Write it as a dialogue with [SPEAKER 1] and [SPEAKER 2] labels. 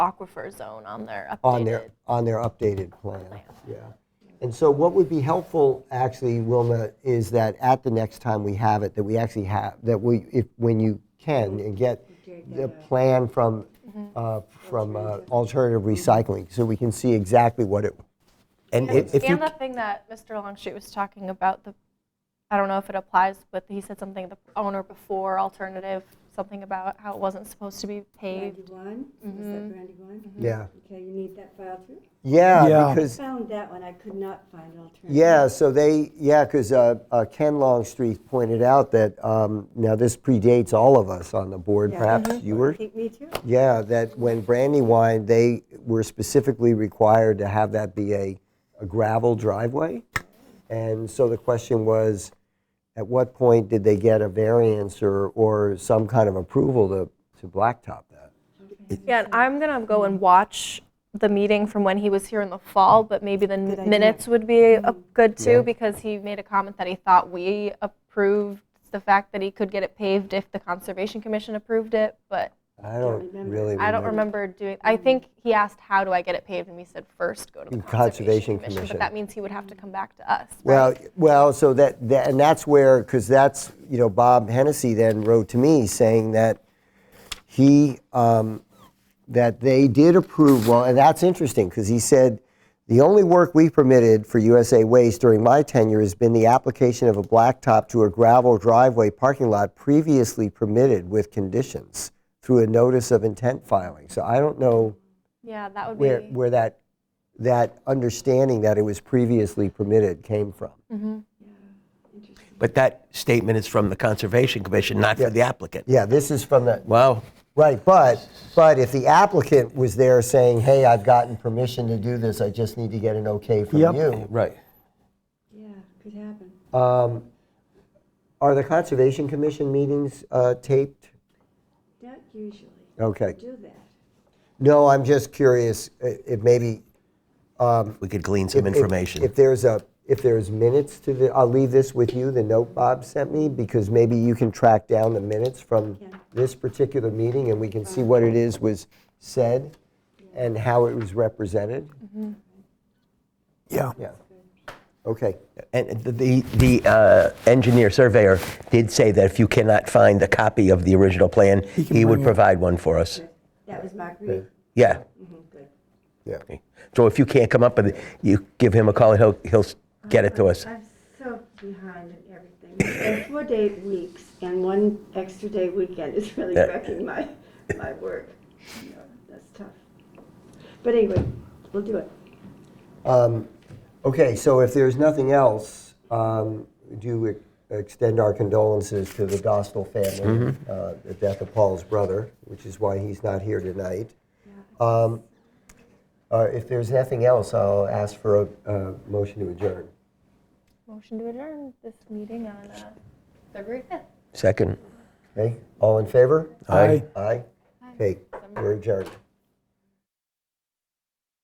[SPEAKER 1] aquifer zone on their updated.
[SPEAKER 2] on their, on their updated plan.
[SPEAKER 1] plan.
[SPEAKER 2] Yeah. And so what would be helpful, actually, Wilma, is that at the next time we have it, that we actually have, that we, if, when you can, and get the plan from, uh, from uh, alternative Mm-hmm. recycling, so we can see exactly what it, and
[SPEAKER 1] And,
[SPEAKER 2] if if you,
[SPEAKER 1] and the thing that Mr. Longstreet was talking about, the, I don't know if it applies, but he said something, the owner before alternative, something about how it wasn't supposed to be paved.
[SPEAKER 3] Brandywine, is that Brandywine?
[SPEAKER 2] yeah.
[SPEAKER 3] Okay, you need that file too?
[SPEAKER 2] Yeah,
[SPEAKER 4] Yeah.
[SPEAKER 2] because
[SPEAKER 3] Found that one, I could not find alternative.
[SPEAKER 2] Yeah, so they, yeah, because Ken Longstreet pointed out that, um, now this predates all of us on the board,
[SPEAKER 3] Yeah.
[SPEAKER 2] perhaps you were?
[SPEAKER 3] I think me too.
[SPEAKER 2] Yeah, that when Brandywine, they were specifically required to have that be a a gravel driveway. And so the question was, at what point did they get a variance or, or some kind of approval to, to blacktop that?
[SPEAKER 1] Yeah, and I'm gonna
[SPEAKER 3] Mm-hmm.
[SPEAKER 1] go and watch the meeting from when he was here in the fall, but maybe the
[SPEAKER 3] Good idea. Mm-hmm.
[SPEAKER 1] minutes would be uh, good
[SPEAKER 2] Yeah.
[SPEAKER 1] too, because he made a comment that he thought we approved the fact that he could get it paved if the Conservation Commission approved it, but
[SPEAKER 2] I don't
[SPEAKER 3] remember.
[SPEAKER 2] really remember.
[SPEAKER 1] I don't remember doing, I think he asked, how do I get it paved? And we said, first, go to the
[SPEAKER 2] Conservation
[SPEAKER 1] Conservation Commission.
[SPEAKER 2] Commission.
[SPEAKER 1] But that means he would have to come back to us.
[SPEAKER 2] Well,
[SPEAKER 1] right?
[SPEAKER 2] well, so that, that and that's where because that's you know Bob Hennessy then wrote to me saying that he um, that they did approve well, and that's interesting because he said the only work we permitted for USA Waste during my tenure has been the application of a blacktop to a gravel driveway parking lot previously permitted with conditions through a notice of intent filing. So I don't know
[SPEAKER 1] Yeah, that would
[SPEAKER 2] where
[SPEAKER 1] be,
[SPEAKER 2] where that that understanding that it was previously permitted came from.
[SPEAKER 5] But that statement is from the Conservation Commission, not for the applicant.
[SPEAKER 2] Yeah, this is from the,
[SPEAKER 5] Wow.
[SPEAKER 2] right, but, but if the applicant was there saying, hey, I've gotten permission to do this, I just need to get an okay from
[SPEAKER 4] Yep.
[SPEAKER 2] you. um,
[SPEAKER 5] Right.
[SPEAKER 3] Yeah, could happen.
[SPEAKER 2] Are the Conservation Commission meetings uh, taped?
[SPEAKER 3] Not usually.
[SPEAKER 2] Okay.
[SPEAKER 3] Do that.
[SPEAKER 2] No, I'm just curious i- if maybe.
[SPEAKER 5] We could glean some
[SPEAKER 2] if-
[SPEAKER 5] information.
[SPEAKER 2] If there's a, if there's minutes to the, I'll leave this with you, the note Bob sent me, because maybe you can track down the minutes from
[SPEAKER 3] Yeah.
[SPEAKER 2] this particular meeting and we can see what it is was said and how it was represented.
[SPEAKER 4] Yeah.
[SPEAKER 2] Yeah. Okay.
[SPEAKER 5] And the, the uh, engineer surveyor did say that if you cannot find a copy of the original plan,
[SPEAKER 4] can
[SPEAKER 5] he would
[SPEAKER 4] bring it.
[SPEAKER 5] provide one for us.
[SPEAKER 3] That was Marguerite.
[SPEAKER 5] Yeah.
[SPEAKER 3] Good.
[SPEAKER 2] Yeah.
[SPEAKER 5] So if you can't come up with it, you give him a call and he'll, he'll s- get it to us.
[SPEAKER 3] I'm so behind in everything. It's been four day weeks and one extra day weekend is really
[SPEAKER 5] Yeah.
[SPEAKER 3] wrecking my, my work. You know, That's tough. But anyway, we'll do it.
[SPEAKER 2] um, Okay, so if there's nothing else, um, do ex- extend our condolences to the Dostal family, uh, the death of Paul's brother, which is why he's not here tonight. Um, uh, If there's nothing else, I'll ask for a uh, motion to adjourn.
[SPEAKER 1] motion to adjourn this meeting on uh, February 5th.
[SPEAKER 5] Second.
[SPEAKER 2] Okay, all in favor?
[SPEAKER 5] Aye.
[SPEAKER 2] Aye? Okay, we're adjourned.